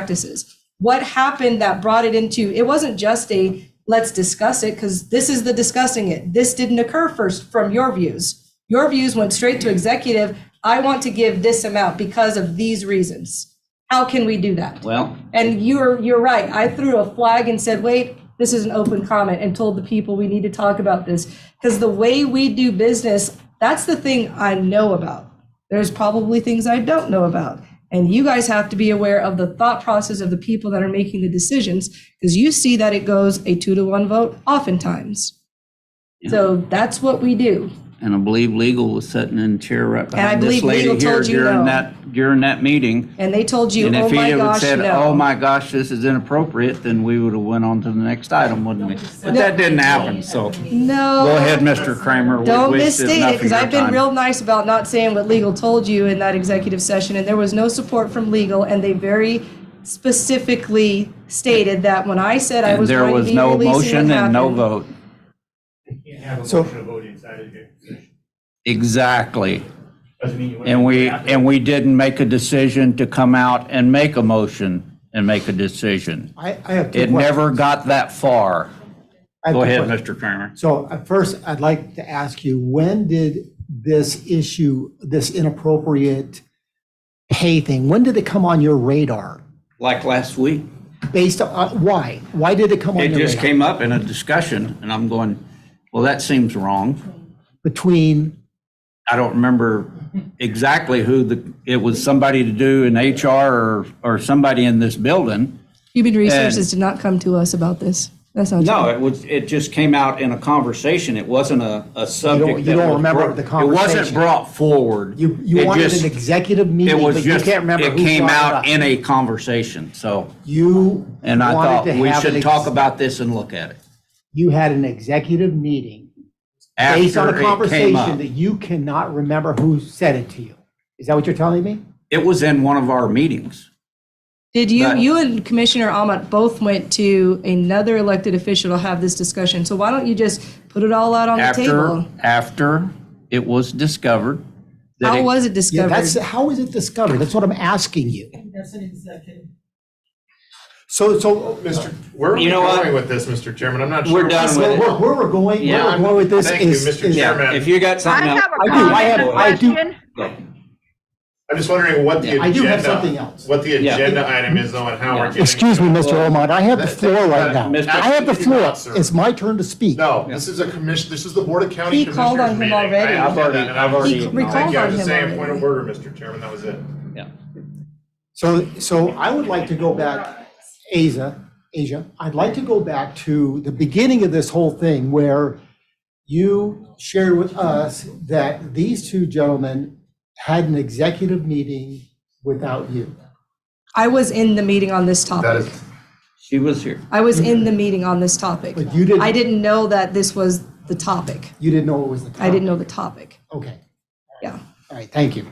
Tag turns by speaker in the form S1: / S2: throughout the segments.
S1: practices. What happened that brought it into it wasn't just a let's discuss it because this is the discussing it. This didn't occur first from your views. Your views went straight to executive. I want to give this amount because of these reasons. How can we do that?
S2: Well,
S1: And you're you're right. I threw a flag and said, "Wait, this is an open comment," and told the people we need to talk about this because the way we do business, that's the thing I know about. There's probably things I don't know about. And you guys have to be aware of the thought process of the people that are making the decisions because you see that it goes a 2 to 1 vote oftentimes. So that's what we do.
S2: and I believe legal was sitting in the chair right behind this
S1: believe
S2: lady
S1: legal
S2: here
S1: told you
S2: during
S1: no.
S2: that, during that meeting.
S1: And they told you,
S2: And
S1: "Oh
S2: if he
S1: my
S2: had
S1: gosh,
S2: said,
S1: no."
S2: oh my gosh, this is inappropriate, then we would have went on to the next item, wouldn't we? But that didn't happen, so
S1: no.
S2: go ahead, Mr. Kramer. We
S1: Don't
S2: wasted
S1: misstate
S2: enough
S1: it,
S2: of
S1: because
S2: your
S1: I've been
S2: time.
S1: real nice about not saying what legal told you in that executive session, and there was no support from legal, and they very specifically stated that when I said I
S2: And
S1: was
S2: there
S1: going to
S2: was
S1: be
S2: no
S1: releasing
S2: motion
S1: what
S2: and no
S1: happened.
S2: vote.
S3: Can't have a
S4: So-
S3: motion to vote inside of here.
S2: Exactly.
S3: Doesn't mean you wouldn't
S2: And we,
S3: have to.
S2: and we didn't make a decision to come out and make a motion and make a decision.
S4: I, I have two
S2: It
S4: questions.
S2: never got that far.
S4: I have
S2: Go
S4: two
S2: ahead,
S4: questions.
S2: Mr. Kramer.
S4: So uh, first, I'd like to ask you, when did this issue, this inappropriate pay thing, when did it come on your radar?
S2: Like last week,
S4: Based on, uh, why? Why did it come on
S2: it
S4: your
S2: just
S4: radar?
S2: came up in a discussion and I'm going, well, that seems wrong.
S4: Between,
S2: I don't remember exactly who the, it was somebody to do in HR or, or somebody in this building.
S1: Human Resources did not come to us about this. That's not
S2: No,
S1: true.
S2: it was, it just came out in a conversation. It wasn't a, a subject.
S4: you
S2: that
S4: don't
S2: was
S4: remember
S2: brought-
S4: the
S2: It
S4: conversation.
S2: wasn't brought forward.
S4: you, you
S2: It
S4: wanted
S2: just-
S4: an executive
S2: It
S4: meeting,
S2: was
S4: but you
S2: just,
S4: can't remember
S2: it
S4: who
S2: came
S4: brought
S2: out
S4: it
S2: in
S4: up.
S2: a conversation, so,
S4: You
S2: and I thought,
S4: wanted to
S2: we
S4: have an
S2: should
S4: ex-
S2: talk about this and look at it.
S4: You had an executive meeting based on
S2: After it
S4: a
S2: came up.
S4: conversation that you cannot remember who said it to you. Is that what you're telling me?
S2: It was in one of our meetings.
S1: Did you,
S2: But-
S1: you and Commissioner Ahmad both went to another elected official to have this discussion, so why don't you just put it all out on the
S2: After,
S1: table?
S2: after it was discovered that
S1: How
S2: it
S1: was it
S4: Yeah, that's,
S1: discovered?
S4: how is it discovered? That's what I'm asking you.
S5: That's an executive.
S4: So, so,
S3: Mr. Where are we
S2: You know what?
S3: going with this, Mr. Chairman? I'm not sure.
S2: We're done with
S4: where,
S2: it.
S4: where we're going, where
S2: Yeah.
S4: we're going with this
S3: Thank you,
S4: is.
S3: Mr.
S4: is-
S3: Chairman.
S2: Yeah, if you got
S6: I
S2: something else.
S6: have a
S4: I do,
S6: comment
S4: I have-
S6: and a
S4: I do-
S6: question.
S3: I'm just wondering what the
S2: Yeah,
S3: agenda.
S4: I do have something else.
S3: What the
S2: Yeah.
S3: agenda item is though and how we're getting.
S4: Excuse me,
S3: to it.
S4: Mr. Omar, I have the
S3: That-
S4: floor right
S3: that-
S4: now.
S2: Mr.
S4: I have the
S3: Excuse me,
S4: floor.
S3: sir.
S4: It's my turn to speak.
S3: No, this is a commission, this is the Board of County
S1: He
S3: Commissioners meeting.
S1: called on him already.
S3: I
S1: I've
S3: understand
S2: already-
S3: that, and I
S2: I've already
S3: was-
S2: acknowledged
S3: Thank you. I
S1: it.
S3: was just saying, point of
S1: Recalled
S3: order, Mr. Chairman, that was it.
S2: Yeah.
S4: So, so I would like to go back, Asia, Asia, I'd like to go back to the beginning of this whole thing where you shared with us that these two gentlemen had an executive meeting without you.
S1: I was in the meeting on this topic.
S3: That is,
S2: She was here.
S1: I was in the meeting on this topic.
S4: But you didn't-
S1: I didn't know that this was the topic.
S4: You didn't know it was the topic.
S1: I didn't know the topic.
S4: Okay,
S1: Yeah.
S4: all right, thank you.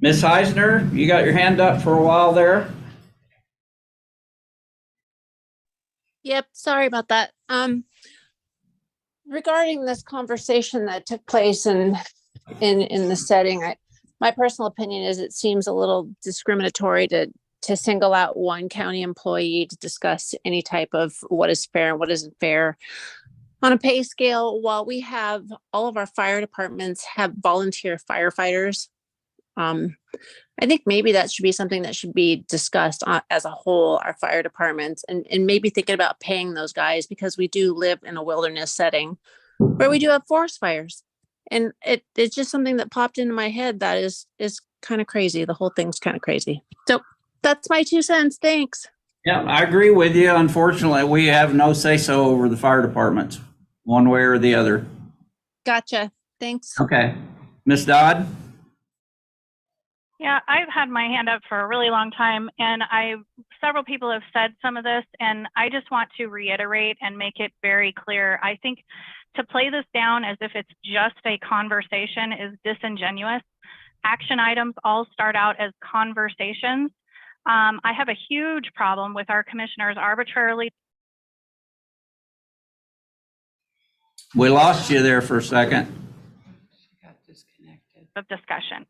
S2: Ms. Eisner, you got your hand up for a while there?
S7: Yep, sorry about that. Um, regarding this conversation that took place in, in, in the setting, I, my personal opinion is it seems a little discriminatory to, to single out one county employee to discuss any type of what is fair and what isn't fair. On a pay scale, while we have, all of our fire departments have volunteer firefighters. Um, I think maybe that should be something that should be discussed on, as a whole, our fire departments, and, and maybe thinking about paying those guys because we do live in a wilderness setting where we do have forest fires. And it, it's just something that popped into my head that is, is kind of crazy. The whole thing's kind of crazy. So that's my two cents. Thanks.
S2: Yeah, I agree with you. Unfortunately, we have no say-so over the fire departments, one way or the other.
S7: Gotcha. Thanks.
S2: Okay. Ms. Dodd?
S6: Yeah, I've had my hand up for a really long time and I, several people have said some of this and I just want to reiterate and make it very clear. I think to play this down as if it's just a conversation is disingenuous. Action items all start out as conversations. Um, I have a huge problem with our commissioners arbitrarily
S2: We lost you there for a second.
S6: of discussion.